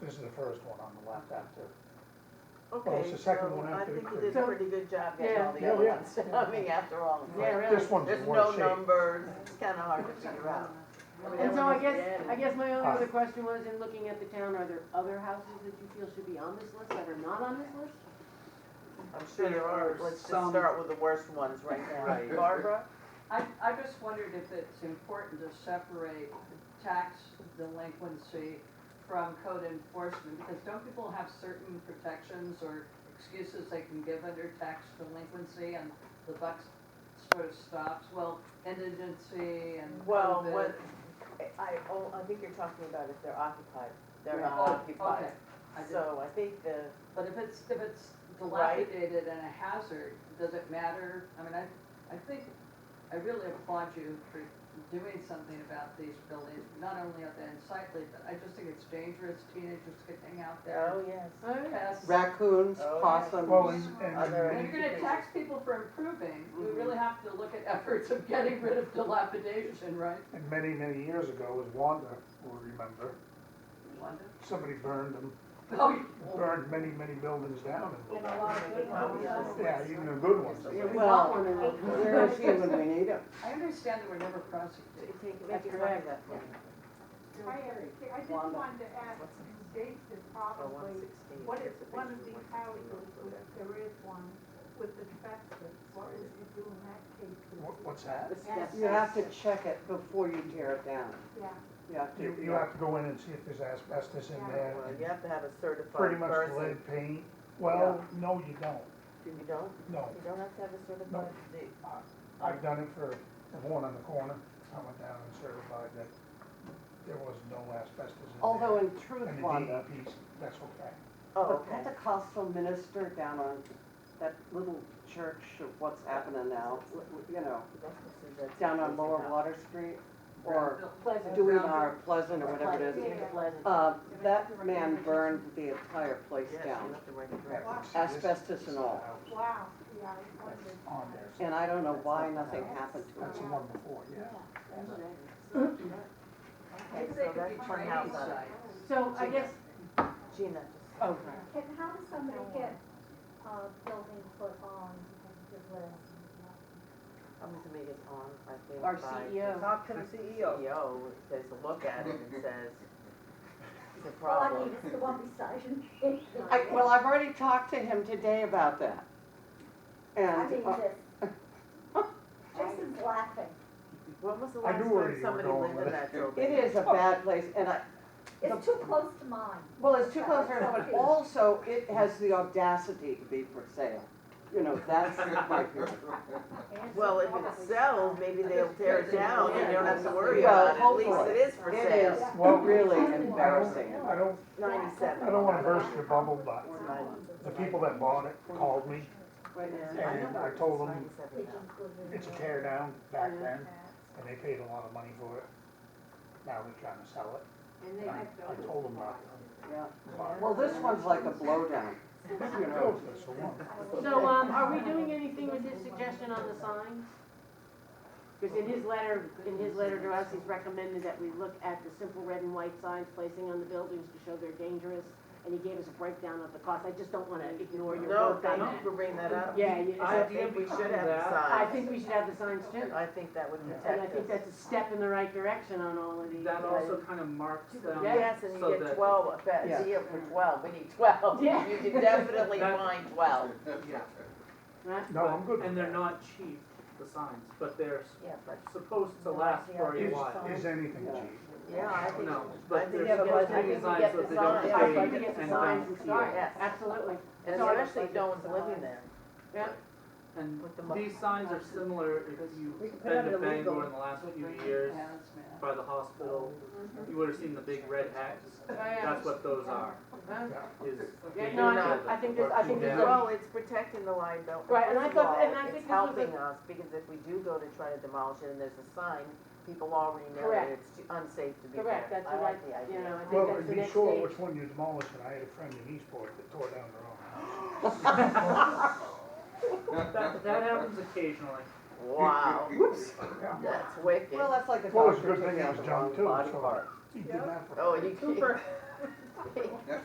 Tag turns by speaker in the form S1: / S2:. S1: This is the first one on the left after.
S2: Okay,
S1: it's the second
S2: so
S1: one after the
S2: I think you did a
S3: So-
S2: pretty good job getting all the
S1: Yeah,
S2: other
S1: yeah.
S2: ones, I mean, after all, it's
S3: Yeah,
S2: like,
S1: Like,
S3: really.
S1: This one's in
S2: there's no
S1: worse shape.
S2: numbers, it's kinda hard to figure out.
S3: And so I guess, I guess my only
S1: Hi.
S3: other question was, in looking at the town, are there other houses that you feel should be on this list that are not on this list?
S2: I'm sure there are, let's just
S4: Some-
S2: start with the worst ones right now.
S4: Right.
S2: Barbara?
S4: I, I just wondered if it's important to separate tax delinquency from code enforcement, because don't people have certain protections or excuses they can give under tax delinquency and the buck sort of stops, well, indigency and
S2: Well,
S4: COVID.
S2: what, I, oh, I think you're talking about if they're occupied, they're not
S4: Oh,
S2: occupied.
S4: okay. I didn't-
S2: So I think the,
S4: But if it's, if it's
S2: Right.
S4: dilapidated and a hazard, does it matter? I mean, I, I think, I really applaud you for doing something about these buildings. Not only are they unsightly, but I just think it's dangerous, teenagers could hang out there.
S2: oh, yes.
S4: Pests.
S5: Raccoons,
S2: Oh, yeah.
S1: Well,
S5: possums,
S1: and, and.
S2: Are there
S4: And you're gonna tax people for improving, we really have to look at efforts of getting rid of dilapidation, right?
S1: And many, many years ago, as Wanda will remember,
S4: Wanda?
S1: somebody burned them,
S4: Oh, you-
S1: burned many, many buildings down. and-
S6: And a lot of good ones.
S1: Yeah, even the good ones.
S3: Yeah, we
S5: Well,
S3: want one of those.
S5: where is he when we need him?
S4: I understand that we're never prosecuted.
S2: Make
S3: That's
S2: your
S3: correct.
S2: that for me.
S6: Hi, Eric. I just wanted to ask, Dave is
S2: Oh, one
S6: probably,
S2: sixteen.
S6: what is, one of these houses, if there is one, with the asbestos, what would you do in that case?
S1: What- What's that?
S3: Yes.
S5: You have to check it before you tear it down.
S6: Yeah,
S5: You have to.
S1: You, you have to go in and see if there's asbestos in there.
S2: Well,
S1: and
S2: you have to have a
S1: Pretty
S2: certified
S1: much
S2: person.
S1: lead paint. Well, no, you don't.
S2: You don't,
S1: No.
S2: you don't have to have a certified, the-
S1: I've done it for the one on the corner. I went down and certified that there was no asbestos in there.
S5: Although in truth,
S1: And the
S5: Wanda,
S1: DEP's, that's okay.
S2: oh,
S5: the
S2: okay.
S5: Pentecostal minister down on that little church of what's happening now, you know, down on Lower Water Street, or
S4: Pleasant.
S5: doing our Pleasant or whatever it is,
S6: Yeah.
S5: uh, that man burned the entire place
S2: Yes, you
S5: down,
S2: have to write it
S1: Yeah,
S2: down.
S1: it's- this-
S5: Asbestos and all.
S6: wow, yeah, I
S1: That's
S6: wondered.
S1: on there. so
S5: and I don't know why nothing happened to
S1: That's
S5: him.
S1: the one before, yeah.
S4: I think they
S2: So
S4: could be
S2: that's one house on it.
S4: training sites.
S6: Oh,
S3: So I guess,
S2: Gina,
S5: Okay.
S7: Can, how does somebody get, uh, building put on the list?
S2: I'm gonna make it on, I think.
S3: Our
S2: by-
S3: CEO.
S2: Talk to the
S1: E
S2: CEO. CEO says, look at it and says, it's a
S7: Well, I
S2: problem.
S7: mean, it's the one beside you.
S5: I, well, I've already talked to him today about that.
S7: I
S5: And,
S7: mean,
S5: uh,
S7: this. Jason's laughing.
S2: When was the
S1: I
S2: last
S1: knew where you
S2: time
S1: were
S2: somebody
S1: going
S2: lived
S1: with
S2: in
S1: it.
S2: that building?
S5: it is a bad place, and I,
S7: It's too close to mine.
S5: Well, it's too close to us, but also it has the audacity to be for sale. You know, that's my fear.
S2: Well, if it sells, maybe they'll tear it down and you don't have to worry
S5: Well,
S2: about it. At least
S5: hopefully.
S2: it is for
S5: It is
S2: sale.
S1: Well,
S5: really
S1: I don't-
S5: embarrassing.
S1: I don't,
S2: Ninety-seven.
S1: I don't wanna burst your bubble, but the people that bought it called me and I told them it's a tear down back then and they paid a lot of money for it. Now they're trying to sell it.
S4: And
S1: And I I told them not
S5: Yeah.
S1: to.
S5: Well, this one's like a blowdown.
S1: You know, that's the one.
S3: so, um, are we doing anything with his suggestion on the signs? Because in his letter, in his letter to us, he's recommended that we look at the simple red and white signs placing on the buildings to show they're dangerous. And he gave us a breakdown of the cost. I just don't wanna ignore
S2: No,
S3: your work on
S2: thank
S3: that.
S2: you for bringing that up.
S3: Yeah, you-
S2: I think we should have the
S3: I
S2: signs.
S3: think we should have the signs too.
S2: I think that would
S3: And I
S2: protect
S3: think
S2: us.
S3: that's a step in the right direction on all of these.
S8: That also kind of marks them.
S2: Yes, and
S8: so
S2: you get
S8: that-
S2: twelve, a bet-
S5: Yeah.
S2: deal for twelve, we need twelve.
S3: Yeah.
S2: You can definitely
S8: That-
S2: find twelve.
S8: Yeah.
S3: Right?
S1: No, I'm good with
S8: And they're
S1: that.
S8: not cheap, the signs, but they're
S2: Yeah, but,
S8: supposed to last for a
S1: Is-
S8: while.
S1: Is anything cheap?
S2: yeah, I think.
S8: No,
S2: I
S8: but
S2: think
S8: they're
S2: you have a
S8: supposed
S2: budget.
S8: to be designed so they don't
S2: Yeah, I think
S8: fade
S3: I
S8: and
S3: think it's the signs
S8: don't
S3: and
S8: tear.
S3: stars,
S2: Yes.
S3: absolutely.
S2: And
S3: So-
S2: especially if no one's living there.
S3: Yeah,
S8: And
S2: With the mo-
S8: these signs are similar if
S2: We
S8: you've
S2: could put
S8: been
S2: out
S8: to
S2: an illegal-
S8: Bangor in the last few years
S4: Hazmat.
S8: by the hospital, you would have seen the big red hats.
S3: Oh, yeah.
S8: That's what those are,
S3: Huh?
S8: is.
S3: Yeah,
S8: they
S3: no, I
S8: do
S3: think- I think there's- I
S8: work
S3: think
S8: you
S3: there's
S8: down.
S3: a-
S2: Well, it's protecting the liability.
S3: Right, and I thought- and I
S2: It's
S3: think this was a-
S2: helping us, because if we do go to try to demolish it and there's a sign, people already know that
S3: Correct.
S2: it's too- unsafe to be there.
S3: Correct, that's what I,
S2: like the idea.
S3: you know, I think
S1: Well,
S3: that's
S1: and
S3: the
S1: be
S3: next
S1: sure
S3: stage.
S1: which one you demolish, and I had a friend in Eastport that tore down their own house.
S8: That, that happens occasionally.
S2: Wow,
S1: Whoops.
S2: that's wicked.
S5: Well, that's like a
S1: Well, it's a
S5: doctor
S1: good thing
S5: taking
S1: it
S5: out
S1: was
S5: the
S1: John
S5: wrong
S1: too,
S5: body
S1: so
S5: part.
S1: he did that for.
S2: Oh, you.